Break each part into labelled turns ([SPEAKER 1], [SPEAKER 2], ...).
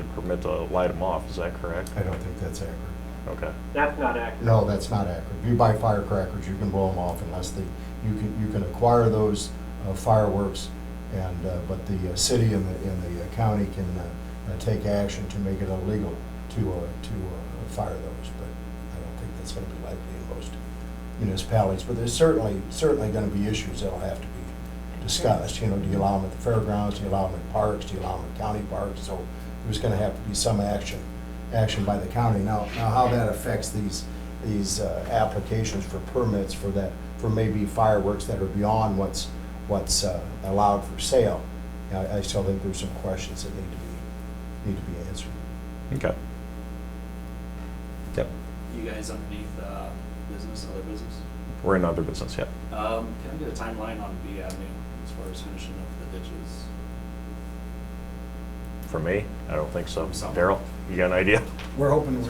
[SPEAKER 1] and permit to light them off, is that correct?
[SPEAKER 2] I don't think that's accurate.
[SPEAKER 1] Okay,
[SPEAKER 3] That's not accurate.
[SPEAKER 2] No, that's not accurate. If you buy firecrackers, you can blow them off unless they, you can, you can acquire those uh, fireworks, and, uh, but the uh, city and the, and the uh, county can uh, uh, take action to make it illegal to, uh, to uh, fire those, but I don't think that's gonna be likely in most municipalities. But there's certainly, certainly gonna be issues that'll have to be discussed, you know, do you allow them at the fairgrounds, do you allow them at parks, do you allow them at county parks? So there's gonna have to be some action, action by the county. Now, now how that affects these, these uh, applications for permits for that, for maybe fireworks that are beyond what's, what's uh, allowed for sale. I, I still think there's some questions that need to be, need to be answered.
[SPEAKER 1] okay. Yep,
[SPEAKER 4] You guys underneath uh, business, other business?
[SPEAKER 1] we're in other business, yep.
[SPEAKER 4] Um, Can I get a timeline on B Avenue as far as finishing up the ditches?
[SPEAKER 1] For me, I don't think so.
[SPEAKER 4] Some.
[SPEAKER 1] Daryl, you got an idea?
[SPEAKER 5] We're hoping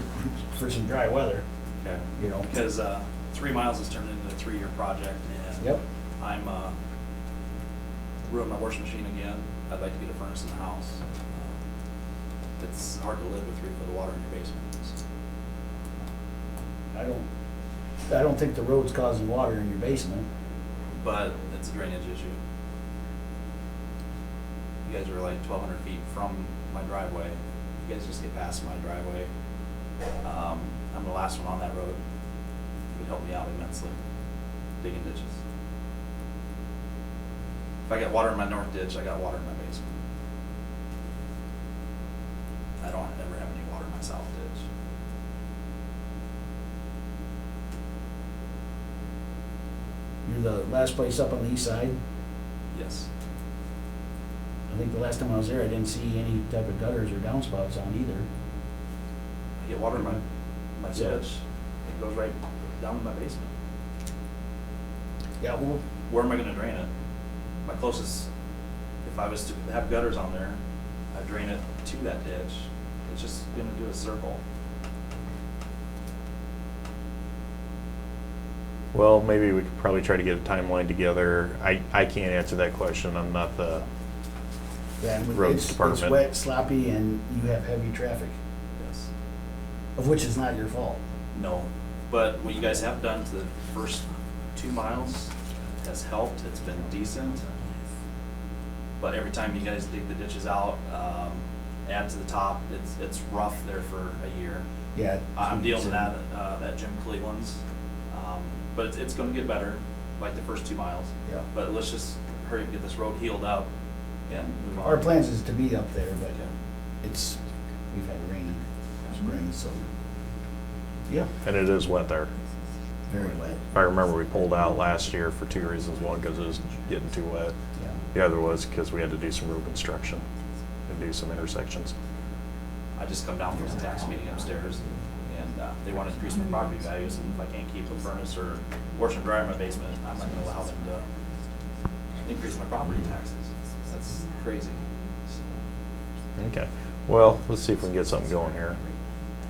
[SPEAKER 5] for some dry weather,
[SPEAKER 4] Okay.
[SPEAKER 5] you know.
[SPEAKER 4] Because uh, three miles has turned into a three-year project and
[SPEAKER 5] Yep.
[SPEAKER 4] I'm uh, ruined my washing machine again. I'd like to get a furnace in the house. Um, It's hard to live with three foot of water in your basement.
[SPEAKER 5] I don't, I don't think the road's causing water in your basement.
[SPEAKER 4] But it's a drainage issue. You guys are like twelve hundred feet from my driveway. You guys just get past my driveway. Um, I'm the last one on that road. It would help me out immensely, digging ditches. If I got water in my north ditch, I got water in my basement. I don't ever have any water in my south ditch.
[SPEAKER 5] You're the last place up on the east side.
[SPEAKER 4] Yes,
[SPEAKER 5] I think the last time I was there, I didn't see any type of gutters or downspouts on either.
[SPEAKER 4] I get water in my, my ditch.
[SPEAKER 5] Yeah.
[SPEAKER 4] It goes right down to my basement.
[SPEAKER 5] Yeah, well,
[SPEAKER 4] where am I gonna drain it? My closest, if I was to have gutters on there, I drain it to that ditch, it's just gonna do a circle.
[SPEAKER 1] Well, maybe we could probably try to get a timeline together. I, I can't answer that question, I'm not the,
[SPEAKER 5] yeah, and
[SPEAKER 1] Roads
[SPEAKER 5] it's, it's
[SPEAKER 1] department.
[SPEAKER 5] wet, sloppy, and you have heavy traffic,
[SPEAKER 4] Yes.
[SPEAKER 5] of which is not your fault.
[SPEAKER 4] No, but what you guys have done to the first two miles has helped, it's been decent. But every time you guys dig the ditches out, um, add to the top, it's, it's rough there for a year.
[SPEAKER 5] Yeah.
[SPEAKER 4] I'm dealing with that, uh, that Jim Cleveland's, um, but it's, it's gonna get better, like the first two miles.
[SPEAKER 5] Yeah.
[SPEAKER 4] But let's just hurry and get this road healed up and move on.
[SPEAKER 5] Our plans is to be up there, but
[SPEAKER 4] Okay.
[SPEAKER 5] it's, we've had rain, spring, so. Yeah,
[SPEAKER 1] and it is wet there.
[SPEAKER 5] very wet,
[SPEAKER 1] If I remember, we pulled out last year for two reasons. One, because it was getting too wet.
[SPEAKER 5] yeah.
[SPEAKER 1] The other was because we had to do some road construction and do some intersections.
[SPEAKER 4] I just come down from the tax meeting upstairs and, uh, they want to increase my property values and if I can't keep a furnace or washer and dryer in my basement, I'm not gonna allow them to increase my property taxes. That's crazy.
[SPEAKER 1] Okay, well, let's see if we can get something going here.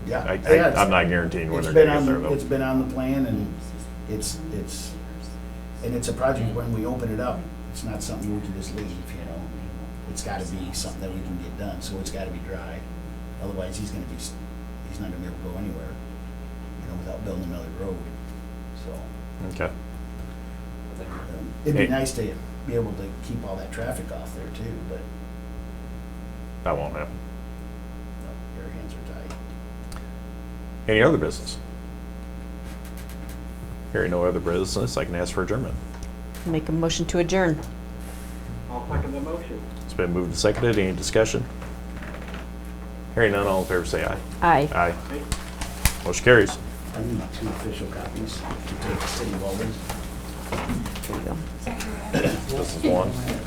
[SPEAKER 5] Yeah.
[SPEAKER 1] I,
[SPEAKER 5] Yeah,
[SPEAKER 1] I,
[SPEAKER 5] it's-
[SPEAKER 1] I'm not guaranteeing
[SPEAKER 5] It's
[SPEAKER 1] whether
[SPEAKER 5] been
[SPEAKER 1] they're
[SPEAKER 5] on,
[SPEAKER 1] gonna
[SPEAKER 5] the-
[SPEAKER 1] get
[SPEAKER 5] it's
[SPEAKER 1] there
[SPEAKER 5] been on the plan and it's, it's, and it's a project when we open it up, it's not something we can just leave, you know? It's gotta be something that we can get done, so it's gotta be dry. Otherwise, he's gonna be, s- he's not gonna be able to go anywhere, you know, without building another road, so.
[SPEAKER 1] though. Okay,
[SPEAKER 4] I think
[SPEAKER 5] um, It'd be
[SPEAKER 1] Hey.
[SPEAKER 5] nice to be able to keep all that traffic off there too, but
[SPEAKER 1] that won't happen.
[SPEAKER 5] no, your hands are tied.
[SPEAKER 1] Any other business? Hearing no other business, I can ask for adjournment.
[SPEAKER 6] Make a motion to adjourn.
[SPEAKER 3] I'll second the motion.
[SPEAKER 1] It's been moved and seconded. Any discussion? Hearing none, all in favor say aye.
[SPEAKER 6] Aye.
[SPEAKER 1] Aye. Motion carries.
[SPEAKER 5] I need two official copies to take to City of Alden.
[SPEAKER 6] There you go.
[SPEAKER 1] This is one.